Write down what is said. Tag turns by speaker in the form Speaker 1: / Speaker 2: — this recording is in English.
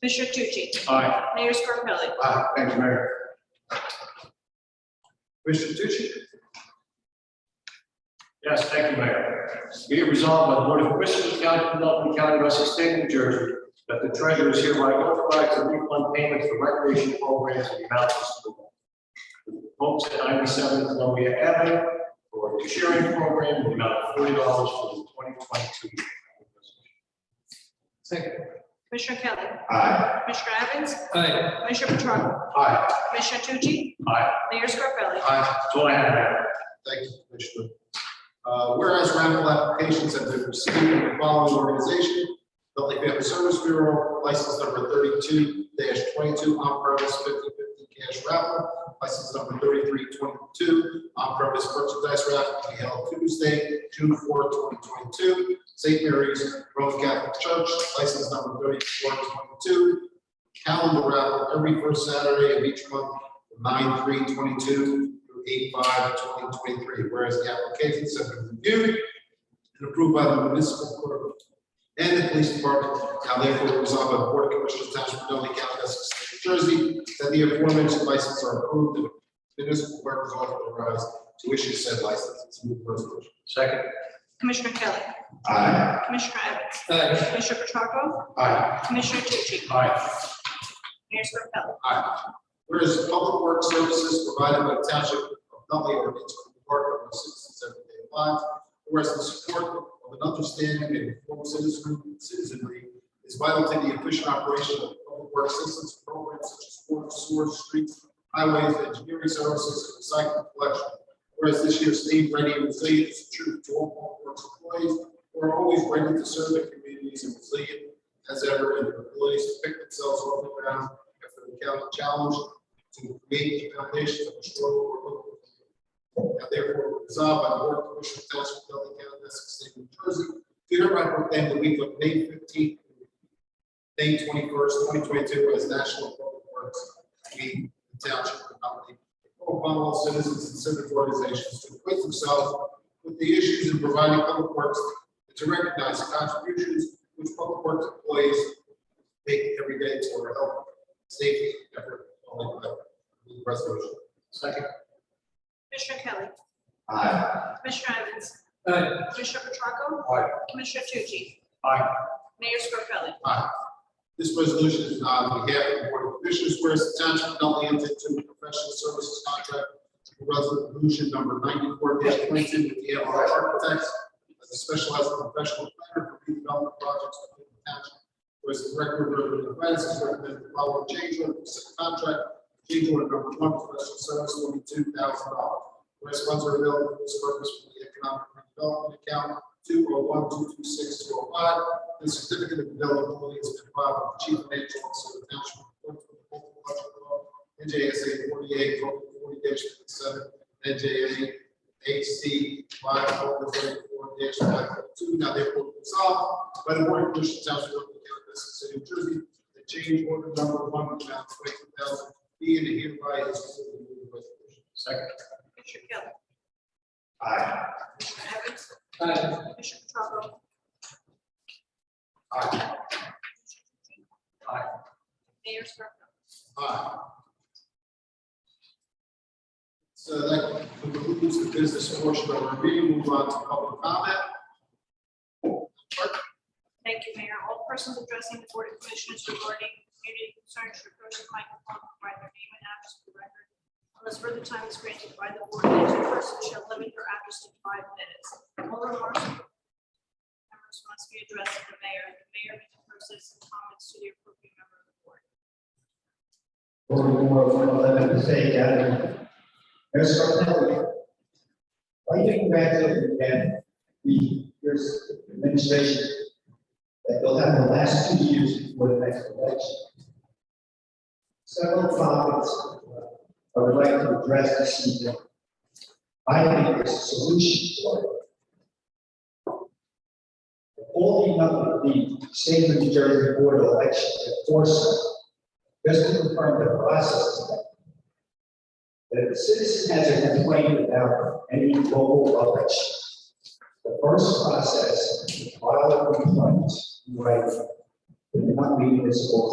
Speaker 1: Commissioner Tucci?
Speaker 2: Aye.
Speaker 1: Mayor Scarpelli?
Speaker 2: Aye, thank you, Mayor. Commissioner Tucci? Yes, thank you, Mayor. Be it resolved by the Board of Commissioners of the County of Philadelphia, County of Essex, State of New Jersey, that the treasurer is hereby authorized to refund payments for recreation programs in the amount of Folks at ninety-seven Columbia Avenue for the cheering program in the amount of forty dollars for the twenty twenty-two. Second.
Speaker 1: Commissioner Kelly?
Speaker 2: Aye.
Speaker 1: Commissioner Evans?
Speaker 2: Aye.
Speaker 1: Commissioner Petracca?
Speaker 2: Aye.
Speaker 1: Commissioner Tucci?
Speaker 2: Aye.
Speaker 1: Mayor Scarpelli?
Speaker 2: Aye. That's all I have, Mayor. Thank you, Commissioner. Uh, Whereas raffle applications have been received from the following organization, Nutley Family Service Bureau, license number thirty-two twenty-two, on-premise fifty-fifty cash raffle, license number thirty-three twenty-two, on-premise merchandise raffle, to be held Tuesday, June fourth, twenty twenty-two, St. Mary's Roman Catholic Church, license number thirty-four twenty-two, calendar raffle every first Saturday of each month, nine three twenty-two through eight five twenty twenty-three, whereas the applications have been reviewed and approved by the municipal court and the police department, now therefore resolved by the Board of Commissioners Township of Nutley County, Essex State, New Jersey, that the aforementioned licenses are approved and municipal clerk is authorized to issue said licenses. Move the resolution. Second.
Speaker 1: Commissioner Kelly?
Speaker 2: Aye.
Speaker 1: Commissioner Evans?
Speaker 2: Aye.
Speaker 1: Commissioner Petracca?
Speaker 2: Aye.
Speaker 1: Commissioner Tucci?
Speaker 2: Aye.
Speaker 1: Mayor Scarpelli?
Speaker 2: Aye. Whereas public work services provided by the township of Nutley are integral part of the citizens' everyday lives. Whereas the support of an understanding and informed citizen- citizenry is vital to the efficient operation of public work systems programs such as water, sewer, streets, highways, engineering services, and recycling collection. Whereas this year's theme, ready and resilient, is true to all public works employees, who are always ready to serve their communities and resilient as ever, and their abilities to pick themselves off the ground after the county challenge to create the foundation of a strong local community. Now therefore resolved by the Board of Commissioners of the Township of Nutley County, Essex State, New Jersey, to hereby proclaim the week of May fifteenth, May twenty-first, twenty twenty-two as National Public Works Week in the Township of Nutley. Upon all citizens and civic organizations to equip themselves with the issues in providing public works and to recognize the contributions which public works employees make every day to our health, safety, effort, all in favor. Move the resolution. Second.
Speaker 1: Commissioner Kelly?
Speaker 2: Aye.
Speaker 1: Commissioner Evans?
Speaker 2: Aye.
Speaker 1: Commissioner Petracca?
Speaker 2: Aye.
Speaker 1: Commissioner Tucci?
Speaker 2: Aye.
Speaker 1: Mayor Scarpelli?
Speaker 2: Aye. This resolution is uh, on behalf of the Board of Commissioners, whereas the township of Nutley entered into a professional services contract for resolution number ninety-four twenty-two with the MRI Architects as a specialized professional planner for redevelopment projects within the township. Whereas the record of the events is recommended the following change order to said contract, change order number one, professional service, twenty-two thousand dollars. Whereas funds are available for this purpose from the economic redevelopment account two oh one, two two six, two oh five, the certificate of availability is provided by the chief financial officer of the township. according to the local budget law, NJSA forty-eight, forty fifty-seven, NJA HC five, forty-four, five, oh two, now therefore resolved by the board of commissioners of the township of Nutley County, of Essex City, of New Jersey, that change order number one, amount twenty thousand, be and hereby is approved. Move the resolution. Second.
Speaker 1: Commissioner Kelly?
Speaker 2: Aye.
Speaker 1: Commissioner Evans?
Speaker 2: Aye.
Speaker 1: Commissioner Petracca?
Speaker 2: Aye. Aye.
Speaker 1: Mayor Scarpelli?
Speaker 2: Aye. So that concludes the business portion of our meeting. Move on to public comment.
Speaker 1: Thank you, Mayor. All persons addressing the Board of Commissioners regarding community concerns should approach the microphone, provide their name and address for the record. Unless further time is granted by the board, each person shall limit their address to five minutes. All remarks from members must be addressed to the mayor, and the mayor may process the comments to the appropriate member of the board.
Speaker 3: Or more of eleven to say, yeah. There's something. I think that's it, and the, there's administration that they'll have the last two years before the next election. Several topics I would like to address this evening. I think there's a solution for it. All the, other- the state of New Jersey Board of Elections enforcement just to confirm the process. That if a citizen has a complaint about any local election, the first process is to file a complaint, right? In the non-municipal